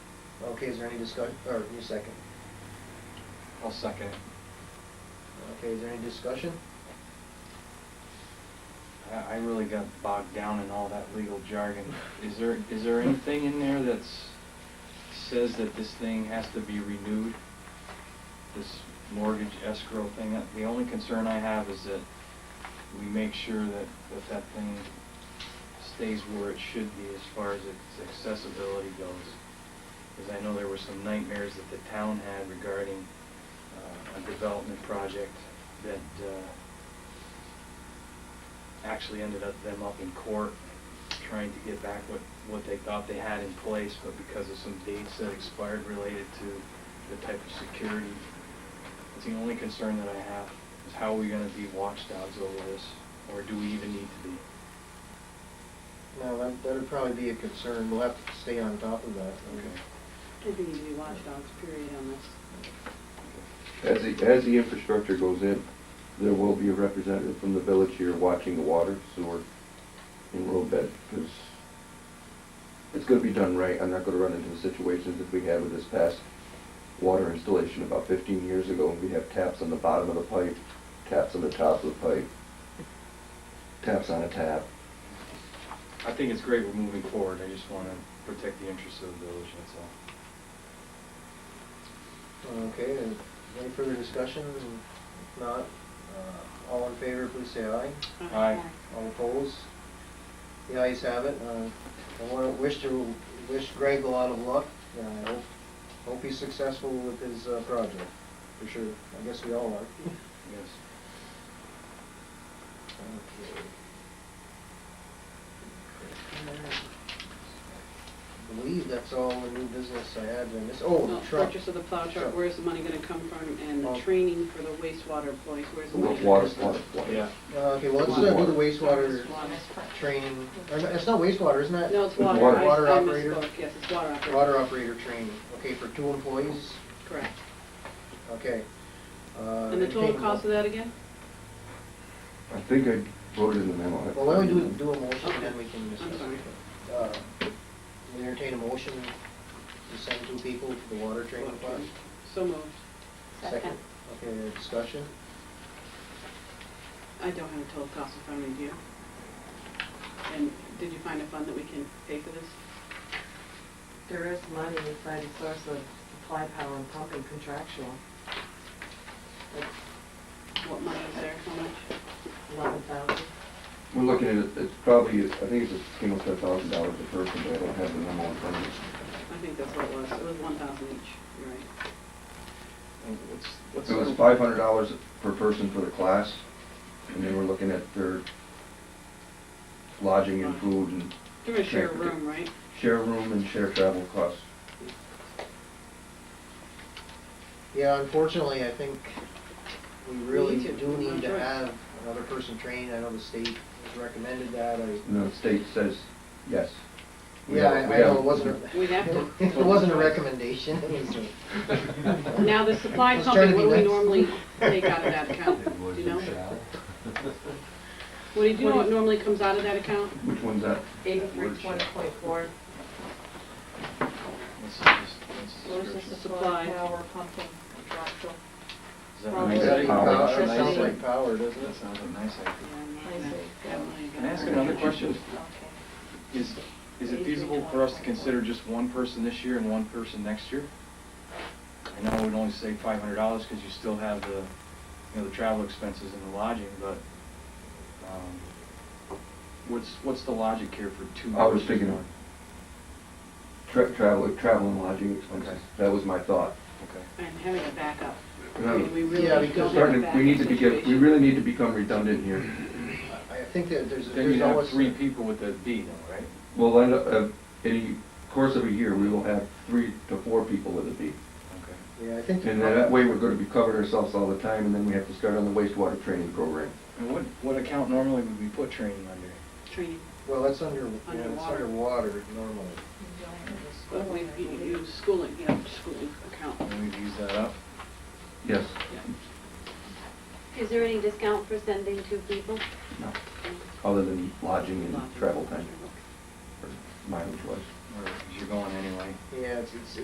Okay, is there any discussion, or you second? I'll second it. Okay, is there any discussion? I, I really got bogged down in all that legal jargon. Is there, is there anything in there that's, says that this thing has to be renewed? This mortgage escrow thing? That- The only concern I have is that we make sure that, that that thing stays where it should be as far as its accessibility goes. Because I know there were some nightmares that the town had regarding uh, a development project that, uh, actually ended up them up in court trying to get back what, what they thought they had in place, but because of some dates that expired related to the type of security. It's the only concern that I have, is how are we gonna be watchdogs over this, or do we even need to be? No, that, that'd probably be a concern, we'll have to stay on top of that. I think you need to be watchdogs, period, on this. As the, as the infrastructure goes in, there will be a representative from the village here watching the water, sewer, and road bed, because it's gonna be done right. I'm not gonna run into the situations that we had with this past water installation about fifteen years ago, and we have taps on the bottom of the pipe, taps on the top of the pipe, taps on a tap. I think it's great we're moving forward, I just wanna protect the interests of the village, that's all. Okay, and any further discussion? If not, uh, all in favor, please say aye. Aye. All opposed? The ayes have it. Uh, I want to wish to, wish Greg a lot of luck, and I hope, hope he's successful with his uh, project, for sure. I guess we all are. Yes. I believe that's all the new business I had, and this, oh, the Well, truck. Purchase of the plow truck, Truck. where's the money gonna come from, and the Well- training for the wastewater employees, where's the money? gonna Water, come water, from? water. Yeah. Uh, Okay, well, let's uh, do the wastewater Water. training, or, no, it's not wastewater, isn't it? No, it's With water. water. I- Water I operator? misspoke. Yes, it's water operator. Water operator training, okay, for two employees, Correct. okay. Uh, And the total anything- cost of that again? I think I wrote it in the memo. Well, why don't we do, do a motion, and then we can I'm discuss. sorry. it. Uh, We entertain a motion to send two people to the water training class? So moved. Second. Okay, discussion? I don't have a total cost in front of me, do you? And did you find a fund that we can pay for this? There is money we find a source of supply power and pumping contractual, What money is there, how much? eleven thousand. We're looking at, it- it's probably, I think it's a single ten thousand dollars a person, but I don't have the memo in front of me. I think that's what it was, it was one thousand each, you're right. And what's- what's- It was five hundred dollars per person for the class, and they were looking at their lodging and food and They're gonna share a Correct. room, right? share room and share travel costs. Yeah, unfortunately, I think we really need to. do need That's to right. have another person trained. I know the state has recommended that, I, And the state says, yes. We yeah, have- we I I know, have- it wasn't, a- We have to. it wasn't a recommendation, it was a- Now, the supply Let's try to pumping, what do we be nice. normally take out of that account? Do you know? What do you, do you know what normally comes out of that account? Which one's that? Eighty-three twenty point four, This is just- this is source of description. supply Supply. power pumping contractual. Does that Well, make it's sense? power. That Electricity. sounds like power, doesn't That it? sounds like a nice idea. Can Can I ask another question? Okay. Is, is it feasible for us to consider just one person this year and one person next year? I know we'd only save five hundred dollars because you still have the, you know, the travel expenses and the lodging, but, um, what's, what's the logic here for two? I was versus thinking- one? Tra- Travel, travel and lodging expenses. Okay. That was my thought. Okay. And having a backup. No. I mean, we really Yeah, don't because- have a Starting, to- we need to backup be, get- we situation. really need to become redundant here. I I think that there's, Then there's you have always. three people with a D though, right? We'll end up, uh, in the course of a year, we will have three to four people with a B. Okay. Yeah, I think. And then that way, we're gonna be covering ourselves all the time, and then we have to start on the wastewater training program. And what, what account normally would we put training under? Training. Well, that's under, yeah, it's Underwater. underwater normally. But we, you you use schooling, you know, schooling account. And we've used that up? Yes. Is there any discount for sending two people? No. Other than lodging and travel time, or mileage wise. Or, 'cause you're going anyway. Yeah, it's, it's,